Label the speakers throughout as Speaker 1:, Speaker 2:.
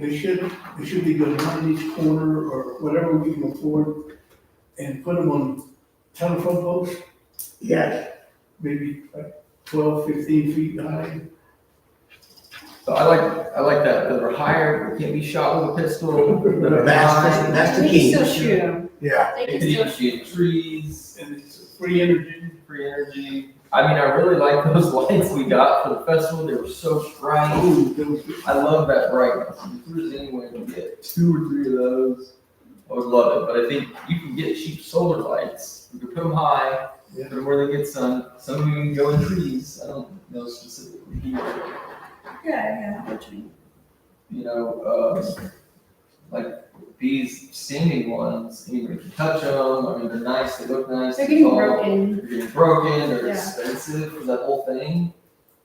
Speaker 1: It should, it should be good on each corner or whatever we can afford and put them on telephone poles,
Speaker 2: Yes,
Speaker 1: maybe like 12, 15 feet high.
Speaker 3: So I like, I like that, that are higher, can't be shot with a pistol, that are
Speaker 2: that's, the-
Speaker 3: high.
Speaker 2: that's the
Speaker 4: They
Speaker 2: key.
Speaker 4: can still shoot them.
Speaker 2: Yeah.
Speaker 4: They
Speaker 3: They
Speaker 4: can
Speaker 3: could
Speaker 4: still
Speaker 3: even
Speaker 4: shoot.
Speaker 3: shoot trees,
Speaker 1: And it's free energy.
Speaker 3: free energy. I mean, I really like those lights we got for the festival, they were so bright.
Speaker 1: Oh, those-
Speaker 3: I love that brightness. If there's any way to get two or three of those, I would love it. But I think you can get cheap solar lights. You can put them high,
Speaker 1: Yeah.
Speaker 3: put them where they get sun. Some of them go in trees. I don't know specifically. here.
Speaker 4: Yeah, yeah, what you mean.
Speaker 3: You know, um, like these standing ones, you know, you can touch them. I mean, they're nice. They look nice.
Speaker 4: They're getting
Speaker 3: tall.
Speaker 4: broken.
Speaker 3: They're getting broken. They're
Speaker 4: Yeah.
Speaker 3: expensive for that whole thing.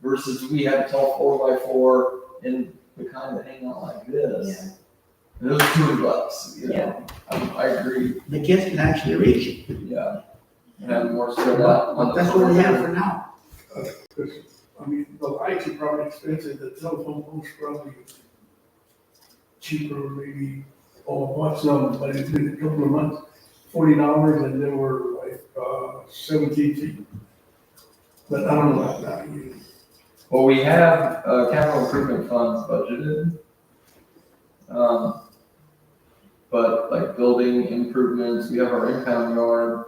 Speaker 3: Versus we had a tall four by four and the kind that hang out like this.
Speaker 4: Yeah.
Speaker 3: And Those are two hundred bucks, you
Speaker 4: Yeah.
Speaker 3: know, I, I agree,
Speaker 2: The kids can actually reach it.
Speaker 3: yeah. And have more spread out on the.
Speaker 2: That's what we have for now.
Speaker 1: I mean, the lights are probably expensive, the telephone poles probably cheaper maybe, or what's them, but it's been a couple of months, forty dollars and they were like, uh, seventeen feet. But I don't know about that, you-
Speaker 3: Well, we have, uh, capital improvement funds budgeted. Um, but like building improvements, we have our impound yard.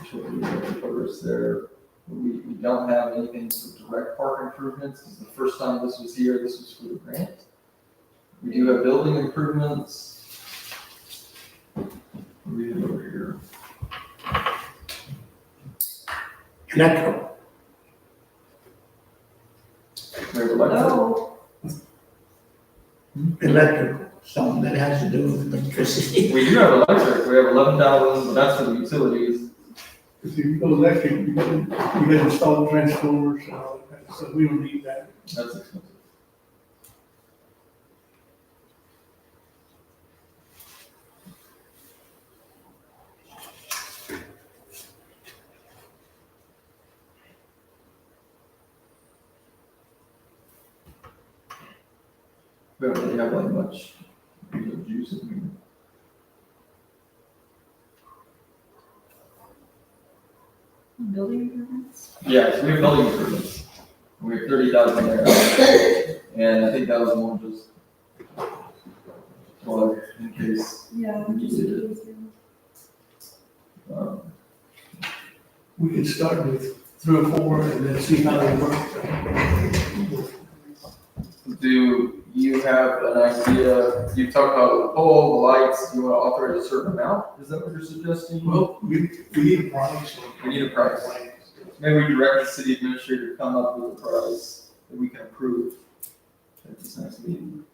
Speaker 3: which will be the first there, we, we don't have anything for direct park improvements, this is the first time this was here, this was for the grant. We do have building improvements. We have over here.
Speaker 2: Electro,
Speaker 3: Mayor Alexa,
Speaker 4: Oh,
Speaker 2: electrical, something that has to do with electricity.
Speaker 3: we do have electric, we have eleven thousand, but that's for the utilities.
Speaker 1: if you go electric, you gotta, you gotta install transformers and all that, so we don't need that.
Speaker 3: That's expensive. We don't really have like much, you know, juice in here.
Speaker 4: building improvements?
Speaker 3: Yeah, so we have building improvements. We have thirty thousand there, and I think that was more just. Well, in case,
Speaker 4: Yeah.
Speaker 3: just- um,
Speaker 1: We could start with three or four and then see how they work.
Speaker 3: do you have an idea, you talked about the pole, the lights, you wanna authorize a certain amount, is that what you're suggesting?
Speaker 1: Well, we, we need a price.
Speaker 3: We need a price. Maybe we direct the city administrator to come up with a price that we can approve at this next meeting.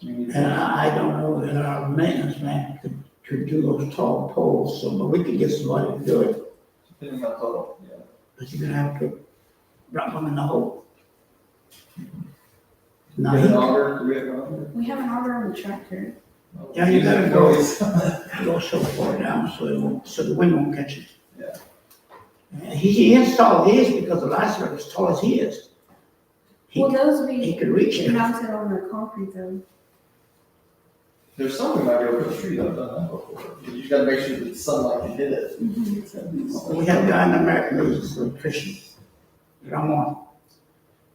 Speaker 3: Do you need-
Speaker 2: And I, I don't know that our maintenance man could, could do those tall poles, so, but we could get somebody to do it.
Speaker 3: Depending on total, yeah.
Speaker 2: But you're gonna have to drop them in the hole.
Speaker 3: Do we have an
Speaker 2: Now,
Speaker 3: auger? Do we have an auger?
Speaker 4: We have an auger on the tractor.
Speaker 2: Yeah, you gotta
Speaker 3: Yeah,
Speaker 2: go.
Speaker 3: always.
Speaker 2: he goes so far down, so it won't, so the wind won't catch it.
Speaker 3: Yeah.
Speaker 2: And he, he installed his because the lights are as tall as he is. He,
Speaker 4: Well, those
Speaker 2: he
Speaker 4: we
Speaker 2: could reach it.
Speaker 4: mounted on the concrete though.
Speaker 3: There's some we might be able to treat that, I've done that before. You just gotta make sure that sunlight can hit it.
Speaker 2: We have a guy in American Legion, an electrician, Ramon.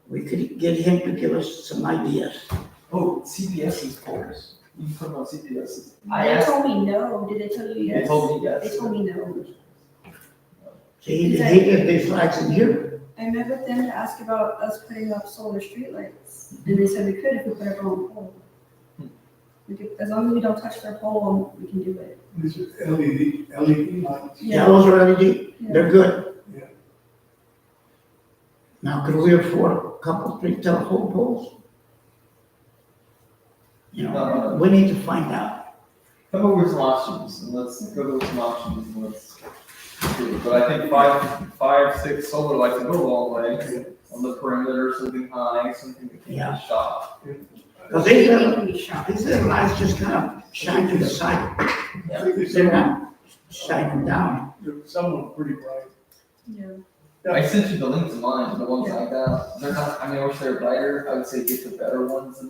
Speaker 2: We could get him to give us some ideas.
Speaker 3: Oh, CPS is porous. You can put them on CPS. I
Speaker 4: They
Speaker 3: asked,
Speaker 4: told me no. Did they tell you
Speaker 3: they
Speaker 4: yes?
Speaker 3: told me yes.
Speaker 4: They told me no.
Speaker 2: See, he, he did these lights in here.
Speaker 4: I met with them to ask about us putting up solar streetlights, and they said we could if we put up our own pole.
Speaker 2: Hmm.
Speaker 4: We could, as long as we don't touch their pole, we can do it.
Speaker 1: This is LED, LED E lights.
Speaker 2: Yeah, those are LED,
Speaker 4: Yeah.
Speaker 2: they're good.
Speaker 1: Yeah.
Speaker 2: Now, could we afford a couple, three telephone poles? You know, we need to find out.
Speaker 3: Come up with some options and let's go with some options and let's. do it. But I think five, five, six solar lights will go a long way on the perimeter, something high, something that can
Speaker 2: Yeah.
Speaker 3: be shot.
Speaker 2: Cause these
Speaker 4: They
Speaker 2: little,
Speaker 4: can be shot.
Speaker 2: these little lights just kind of shine to the side,
Speaker 1: I think there's
Speaker 2: they're
Speaker 1: some,
Speaker 2: not shining down.
Speaker 1: there's some are pretty bright.
Speaker 4: Yeah.
Speaker 3: I sent you the link to mine, the ones I got. They're not, I mean, I wish they were brighter. I would say get the better ones